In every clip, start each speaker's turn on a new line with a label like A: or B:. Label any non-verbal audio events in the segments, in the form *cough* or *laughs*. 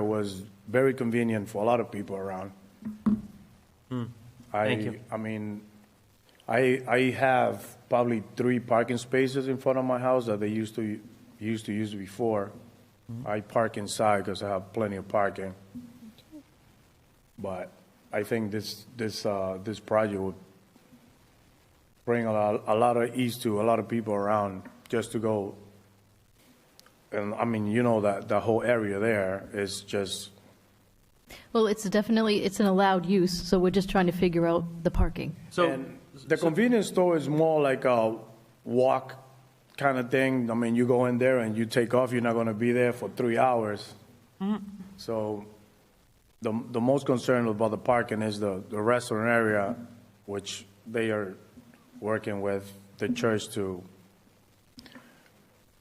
A: It was very convenient for a lot of people around.
B: Hmm. Thank
A: I,
B: you.
A: I mean, I, I have probably three parking spaces in front of my house that they used to, used to use before.
B: Hmm.
A: I park inside because I have plenty of parking. But I think this, this, uh, this project would bring a lot, a lot of ease to a lot of people around just to go. And I mean, you know that, the whole area there is just,
C: Well, it's definitely, it's an allowed use, so we're just trying to figure out the parking.
B: So,
A: And the convenience store is more like a walk kind of thing. I mean, you go in there and you take off, you're not gonna be there for three hours.
B: Mm-hmm.
A: So the, the most concern about the parking is the, the restaurant area, which they are working with the church to,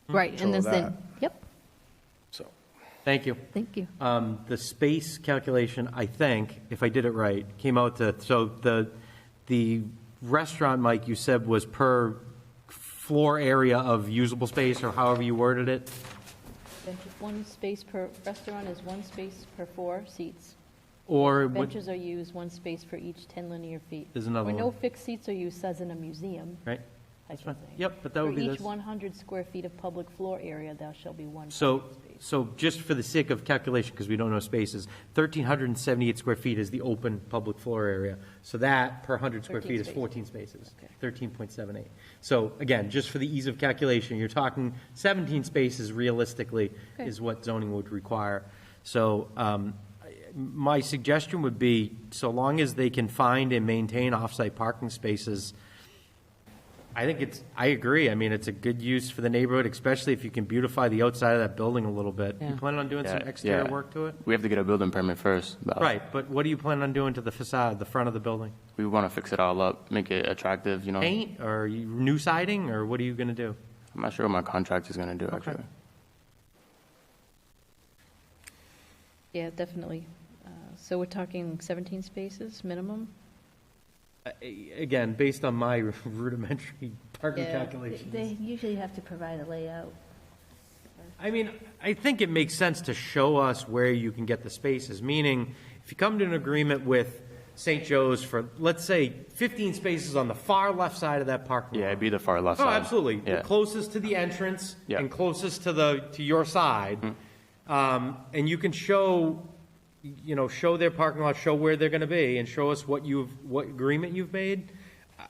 B: Hmm.
C: Right, and
A: So
C: then, then- yep,
A: so.
B: thank you.
C: thank you.
B: Um, The space calculation, I think, if I did it right, came out to, so the, the restaurant, Mike, you said was per floor area of usable space, or however you worded it?
D: Benches, one space per, restaurant is one space per four seats.
B: Or what,
D: Benches are used, one space for each 10 linear feet.
B: There's another
D: Or no
B: one.
D: fixed seats are used, says in a museum,
B: right?
D: I
B: fine.
D: should say.
B: Yep, but that would be
D: For
B: this.
D: each 100 square feet of public floor area, there shall be one
B: So,
D: parking space.
B: so just for the sake of calculation, because we don't know spaces, 1,378 square feet is the open public floor area. So that per 100 square
D: 13
B: feet is
D: spaces.
B: 14 spaces,
D: Okay.
B: 13.78. So again, just for the ease of calculation, you're talking 17 spaces realistically is what zoning would require. So um, I- my suggestion would be, so long as they can find and maintain off-site parking spaces, I think it's, I agree. I mean, it's a good use for the neighborhood, especially if you can beautify the outside of that building a little bit. You planning on doing some
E: Yeah,
B: exterior
E: yeah. Oh.
B: work to it?
E: We have to get a building permit first. but
B: Right, but what do you plan on doing to the facade, the front of the building?
E: We want to fix it all up, make it attractive, you know?
B: Paint or you- new siding or what are you going to do?
E: I'm not sure what my contract is going to do, actually.
D: Yeah, definitely. Uh, So we're talking 17 spaces minimum?
B: Uh, a- Again, based on my *laughs* rudimentary parking
D: Yeah.
B: calculations.
F: They usually have to provide a layout.
B: I mean, I think it makes sense to show us where you can get the spaces, meaning if you come to an agreement with St. Joe's for, let's say, 15 spaces on the far left side of that parking lot.
E: Yeah, it'd be the far left
B: Oh,
E: side.
B: absolutely. The
E: Yeah.
B: closest to the entrance
E: Yeah. Mm-hmm.
B: and closest to the, to your side. Um, and you can show, you know, show their parking lot, show where they're gonna be and show us what you've, what agreement you've made.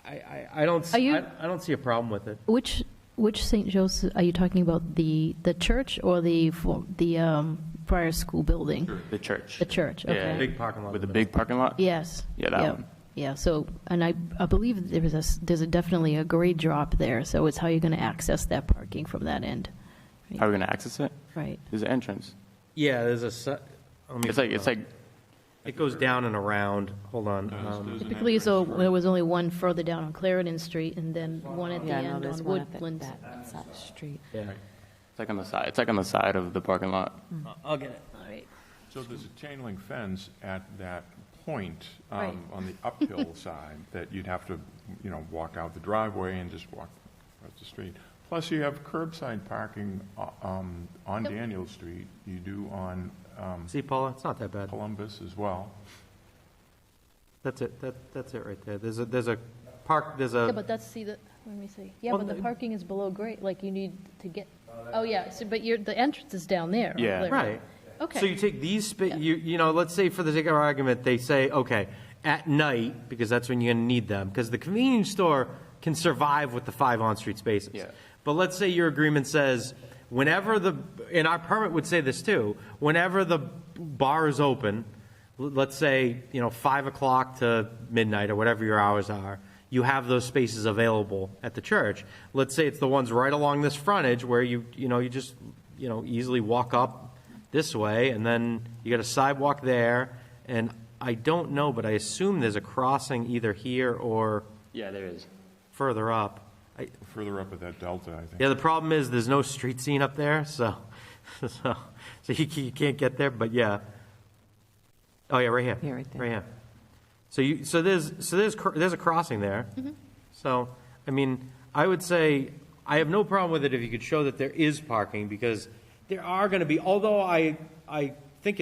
B: I, I, I don't, s-
C: Are you-
B: I, I don't see a problem with it.
C: Which, which St. Joseph, are you talking about the, the church or the, fo- the um, prior school building?
E: The church.
C: The church,
E: Yeah.
C: okay.
B: Big parking lot.
E: With
B: in
E: the
B: the
E: big parking lot?
C: Yes.
E: Yeah, that
C: yeah,
E: one.
C: Yeah, so, and I, I believe there is a, s- there's a definitely a grade drop there, so it's how you're going to access that parking from that end,
E: How are we going to access it?
C: right?
E: There's an entrance.
B: middle. Yeah, there's a, se- let me-
E: It's like, it's like,
B: It goes down and around. Hold on. Um,
C: Typically, so there was only one further down on Clarendon Street and then one at the
G: Yeah, no,
C: end
G: there's
C: on
G: one at
C: Woodland.
G: that, that side street.
B: yeah.
E: it's like on the side, it's like on the side of the parking lot.
B: I'll get it.
H: So there's a chain link fence at that point um, on the uphill side that you'd have to, you know, walk out the driveway and just walk across the street. Plus, you have curbside parking uh, um, on Daniel Street. You do on um,
B: See, Paula, it's not that bad.
H: Columbus as well.
B: That's it. That, that's it right there. There's a, there's a park, there's a.
D: Yeah, but that's, see, the, let me see. Yeah,
B: Well,
D: but the
B: the-
D: parking is below grade, like you need to get, oh, yeah, so, but your, the entrance is down there. on
E: Yeah.
D: Blair.
B: Right.
D: Okay.
B: So you take these, spa- you, you know, let's say for the sake of argument, they say, okay, at night, because that's when you're gonna need them, because the convenience store can survive with the five on-street spaces.
E: Yeah.
B: But let's say your agreement says, whenever the, and our permit would say this too, whenever the bar is open, l- let's say, you know, five o'clock to midnight or whatever your hours are, you have those spaces available at the church. Let's say it's the ones right along this frontage where you, you know, you just, you know, easily walk up this way, and then you got a sidewalk there, and I don't know, but I assume there's a crossing either here or
E: Yeah, there is.
B: further up. I,
H: Further up at that delta, I think.
B: yeah, the problem is there's no street scene up there, so, *laughs* so, so you, you can't get there, but yeah. Oh, yeah, right here.
G: Yeah, right there.
B: Right here. So you, so there's, so there's, cr- there's a crossing there.
G: Mm-hmm.
B: So, I mean, I would say, I have no problem with it if you could show that there is parking, because there are gonna be, although I, I